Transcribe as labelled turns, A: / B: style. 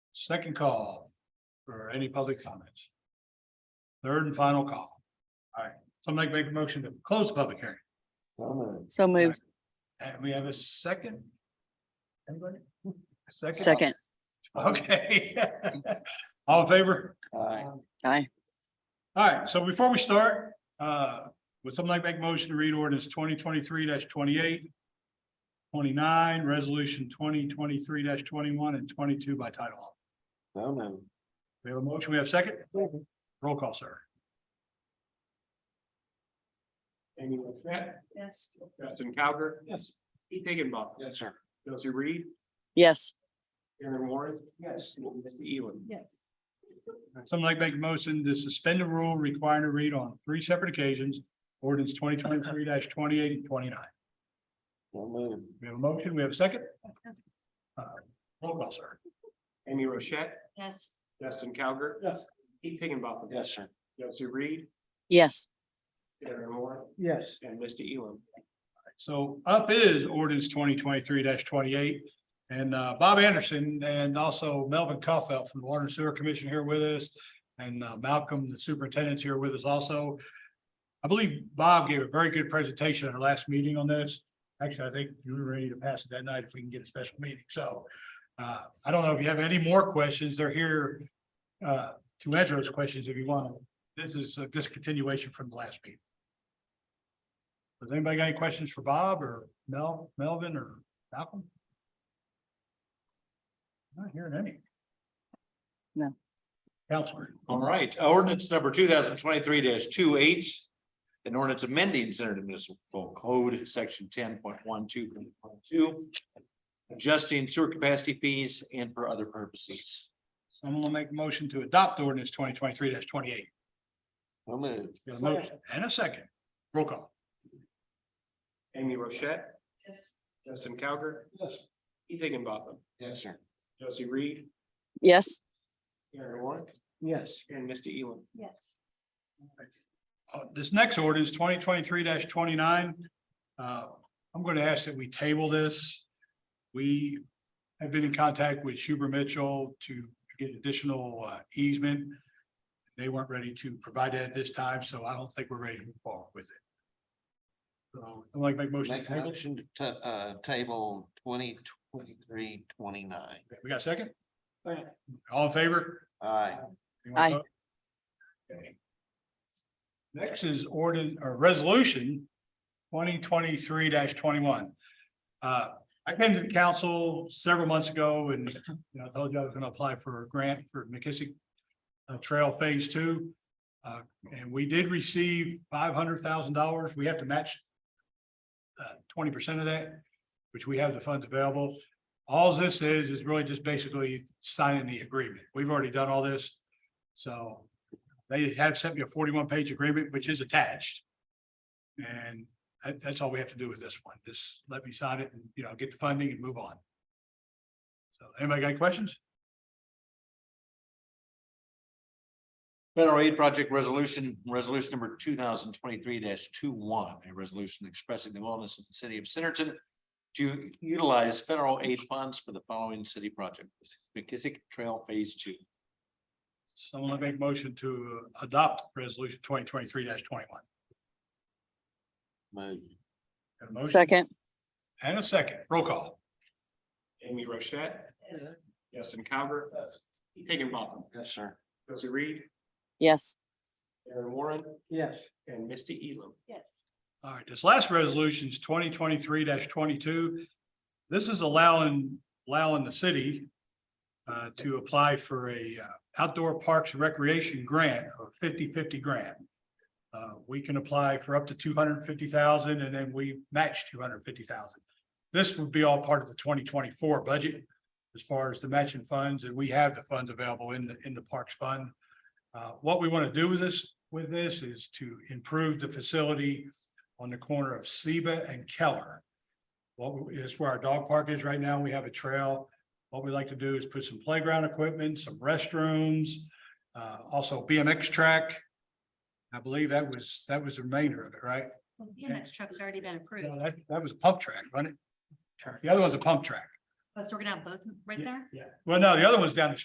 A: Second call for any public comments. Third and final call. All right, somebody make a motion to close the public hearing.
B: So moved.
A: And we have a second? Anybody? A Second?
B: Second.
A: Okay. All in favor?
B: Aye.
A: All right, so before we start, uh, would somebody like to make a motion to read ordinance twenty twenty-three twenty-eight? Twenty-nine, resolution twenty twenty-three twenty-one and twenty-two by title. only. We have a motion, we have a second? Roll call, sir.
C: Amy Wissett,
D: Yes.
C: Justin Cowger.
A: Yes.
C: Pete Higginbotham.
A: Yes, sir.
C: Josie Reed,
B: Yes.
C: Aaron Warren. Yes. Missy Eland.
D: Yes.
A: Something like to make a motion to suspend the rule requiring a read on three separate occasions, ordinance twenty twenty-three twenty-eight and twenty-nine. We have a motion, we have a second? Uh, Roll call, sir.
C: Amy Rochette,
D: Yes.
C: Justin Cowger.
A: Yes.
C: Pete Higginbotham.
A: Yes, sir.
C: Josie Reed,
B: Yes.
C: Aaron Warren,
A: Yes.
C: and Misty Elam.
A: So up is ordinance twenty twenty-three twenty-eight. And uh, Bob Anderson and also Melvin Kaufeld from the Water and Sewer Commission here with us. And uh, Malcolm, the superintendent's here with us also. I believe Bob gave a very good presentation at our last meeting on this. Actually, I think you were ready to pass it that night if we can get a special meeting. So uh, I don't know if you have any more questions. They're here uh, to answer those questions if you want. This is a discontinuation from the last meeting. Does anybody got any questions for Bob or Mel, Melvin or Malcolm? Not hearing any.
B: No.
A: Counselor,
E: All right, ordinance number two thousand twenty-three 28 An ordinance amending Centerton Municipal Code, section ten point one two point two. Adjusting sewer capacity fees and for other purposes.
A: someone will make a motion to adopt ordinance twenty twenty-three twenty-eight. Got a motion and a second. Roll call.
C: Amy Rochette,
D: Yes.
C: Justin Cowger. Yes. Pete Higginbotham. Yes, sir. Josie Reed,
B: Yes.
C: Aaron Warren,
A: Yes.
C: and Misty Elam.
D: Yes.
A: Uh, this next ordinance twenty twenty-three twenty-nine. Uh, I'm going to ask that we table this. We have been in contact with Huber Mitchell to get additional uh, easement. They weren't ready to provide that at this time, so I don't think we're ready to move forward with it. So I'd like to make a motion. to
F: Make a
A: table.
F: motion to, uh, table twenty twenty-three, twenty-nine.
A: We got a second? All in favor?
F: Aye.
A: Anyone
B: Aye.
A: opposed? Okay. Next is ordin, or resolution twenty twenty-three twenty-one. Uh, I came to the council several months ago and, you know, I told you I was gonna apply for a grant for McKissick uh, Trail Phase Two. Uh, and we did receive five hundred thousand dollars. We have to match uh, twenty percent of that, which we have the funds available. All this is, is really just basically signing the agreement. We've already done all this. So they have sent me a forty-one page agreement, which is attached. And that- that's all we have to do with this one. Just let me sign it and, you know, get the funding and move on. So anybody got any questions?
E: Federal aid project resolution, resolution number two thousand twenty-three 21 a resolution expressing the willingness of the city of Centerton. To utilize federal aid funds for the following city projects, McKissick Trail Phase Two.
A: Someone make a motion to adopt resolution twenty twenty-three twenty-one.
F: Move.
B: Second.
A: And a second, roll call.
C: Amy Rochette,
D: Yes.
C: Justin Cowger. Pete Higginbotham.
F: Yes, sir.
C: Josie Reed,
B: Yes.
C: Aaron Warren,
F: Yes.
C: and Misty Elam.
D: Yes.
A: All right, this last resolution is twenty twenty-three twenty-two. This is allowing, allowing the city uh, to apply for a uh, outdoor parks recreation grant or 50-50 grant. Uh, we can apply for up to two hundred and fifty thousand and then we match two hundred and fifty thousand. This would be all part of the twenty twenty-four budget as far as the matching funds, and we have the funds available in the, in the Parks Fund. Uh, what we want to do with this, with this is to improve the facility on the corner of Seba and Keller. What is where our dog park is right now. We have a trail. What we like to do is put some playground equipment, some restrooms, uh, also BMX track. I believe that was, that was the remainder of it, right?
D: Well, the BMX truck's already been approved.
A: No, that, that was a pump track, wasn't it? The other one's a pump track.
D: Oh, So we're gonna have both right there?
A: Yeah. Well, no, the other one's down the